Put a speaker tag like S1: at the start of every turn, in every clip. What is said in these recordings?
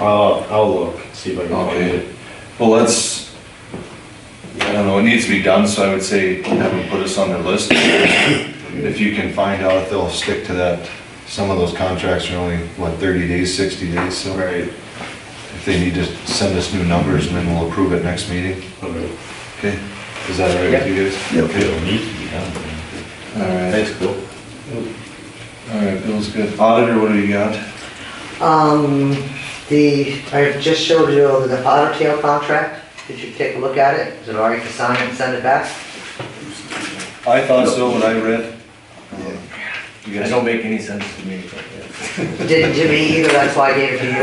S1: I'll, I'll look, see if I can find
S2: Okay.
S1: it.
S2: Well, let's, I don't know, it needs to be done, so I would say have them put us on their list. If you can find out if they'll stick to that, some of those contracts are only, what, thirty days, sixty days, so.
S1: Right.
S2: If they need to send us new numbers and then we'll approve it next meeting,
S1: Okay.
S2: okay? Is that all right with you guys?
S3: Yep.
S4: It'll need to be done. man.
S2: All right,
S1: That's cool.
S2: all right, Bill's good. Auditor, what do you got?
S5: Um, the, I just showed you the otter tail contract. Did you take a look at it? Is it all right to sign it and send it back?
S2: I thought so, what I read. You
S4: It
S2: guys,
S4: don't make any sense to me, but yeah.
S5: It Didn't to me either, that's why I gave it to you.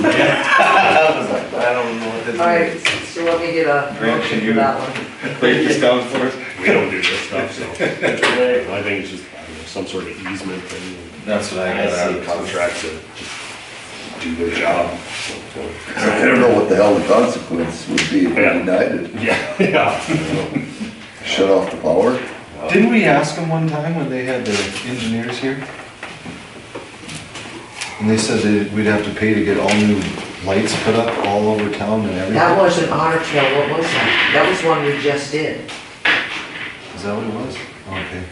S4: I was like, I don't know what this
S5: All right,
S4: is.
S5: so let me get a
S2: Grant, can
S5: motion for
S2: you-
S5: that one.
S2: break this down for us?
S1: We don't do this stuff, so. I think it's just, I don't know, some sort of easement thing,
S2: That's what I
S4: I
S2: got out
S4: see.
S2: of contract.
S1: contract to just do their job.
S3: I don't know what the hell the consequence would be if we
S1: Yeah.
S3: denied it.
S1: Yeah, yeah.
S3: Shut off the power?
S2: Didn't we ask them one time when they had the engineers here? And they said that we'd have to pay to get all new lights put up all over town and
S5: That
S2: everything?
S5: was an otter tail, what was that? That was one we just did.
S2: Is that what it was? Oh, Okay.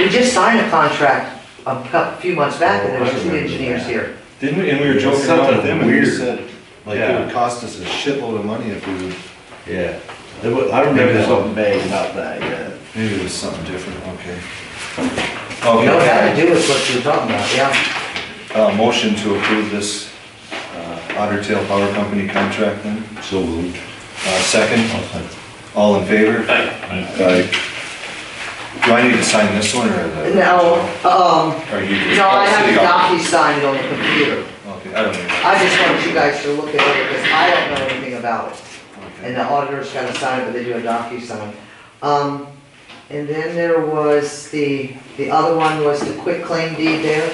S5: We just signed a contract a cou- few months back and there
S2: Oh, I
S5: was two
S2: remember
S5: engineers
S2: that.
S5: here.
S2: Didn't we, and we were joking around
S4: Something
S2: with them and we
S4: weird.
S2: said, like, it would cost us a shitload of money if we would,
S4: Yeah, There wa- I remember there's something vague about that, yeah.
S2: maybe it was something different, okay. Oh,
S5: You know, that
S2: Okay,
S5: to do with what you were talking about, yeah.
S2: uh, motion to approve this, uh, Otter Tail Power Company contract then?
S1: So moved.
S2: Uh, second? All in favor?
S3: I
S2: Do I need to sign this one or? the-
S5: No, um,
S2: Or you? Oh,
S5: no, I have
S2: City
S5: a
S2: office.
S5: docu-sign it on the computer.
S2: Okay, I don't know.
S5: I just want you guys to look at it because I don't know anything about it. And the auditor's gotta sign it, but they do a docu-sign. Um, and then there was the, the other one was the quick claim deed there.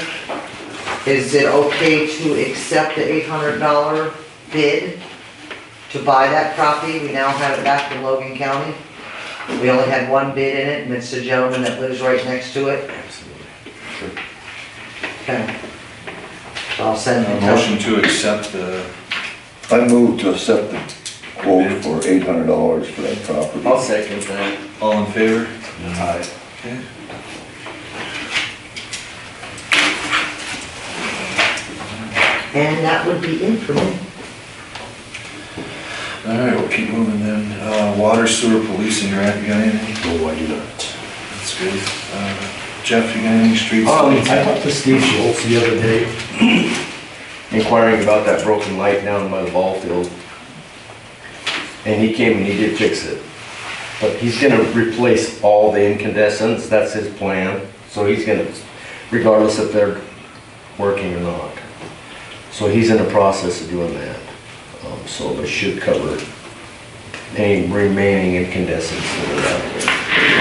S5: Is it okay to accept the eight hundred dollar bid to buy that property? We now have it back from Logan County. We only had one bid in it and it's the gentleman that lives right next to it. Okay. So I'll send
S2: A
S5: it.
S2: Motion to accept the,
S3: I moved to accept the quote for eight hundred dollars for that property.
S4: I'll second that.
S2: all in favor?
S4: Aye.
S2: Okay.
S5: And that would be it for me.
S2: All right, we'll keep moving then. Uh, water sewer policing grant, you got anything?
S1: No, I do not.
S2: That's good. Uh, Jeff, you got any streets?
S4: Um,
S6: I talked to Steve Schultz the other day.
S4: Inquiring about that broken light down by the ball field. And he came and he did fix it. But he's gonna replace all the incandescents, that's his plan. So he's gonna, regardless if they're working or not. So he's in the process of doing that. Um, so it should cover any remaining incandescents that are out there.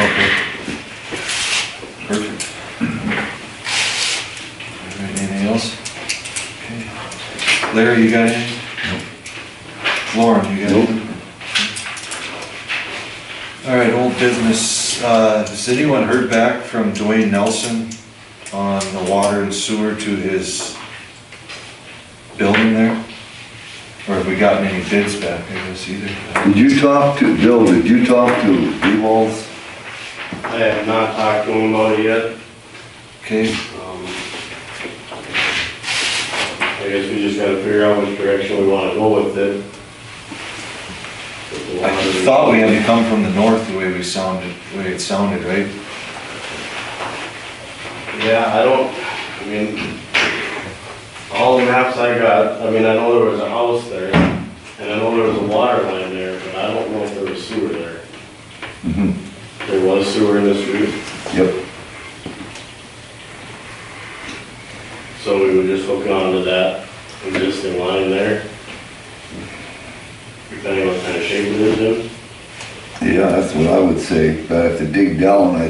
S2: Okay. Perfect. All right, anything else? Okay. Larry, you got anything? Lauren, you got
S3: Nope.
S2: anything? All right, old business, uh, has anyone heard back from Dwayne Nelson on the water and sewer to his building there? Or have we gotten any bids back, I guess either?
S3: Did you talk to, Bill, did you talk to Ewalls?
S1: I have not talked to him about it yet.
S2: Okay,
S1: Um, I guess we just gotta figure out which direction we wanna go with it. With the
S2: I
S1: lottery.
S2: thought we had to come from the north the way we sounded, the way it sounded, right?
S1: Yeah, I don't, I mean, all the maps I got, I mean, I know there was a house there, and I know there was a water line there, but I don't know if there was sewer there.
S2: Mm-hmm.
S3: Mhm.
S1: There was sewer in this roof,
S3: Yep.
S1: so we would just hook onto that existing line there. Depending on what kind of shape it is in.
S3: Yeah, that's what I would say, but I have to dig down, I,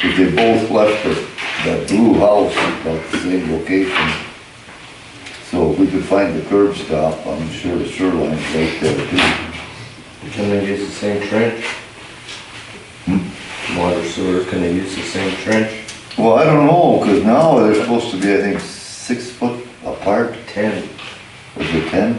S3: if they both left the, that blue house at about the same location. So if we could find the curb stop, I'm sure the shoreline's right there too.
S4: Can they use the same trench? Hmm? Water sewer, can they use the same trench?
S3: Well, I don't know, cause now they're supposed to be, I think, six foot apart,
S4: Ten.
S3: was it ten?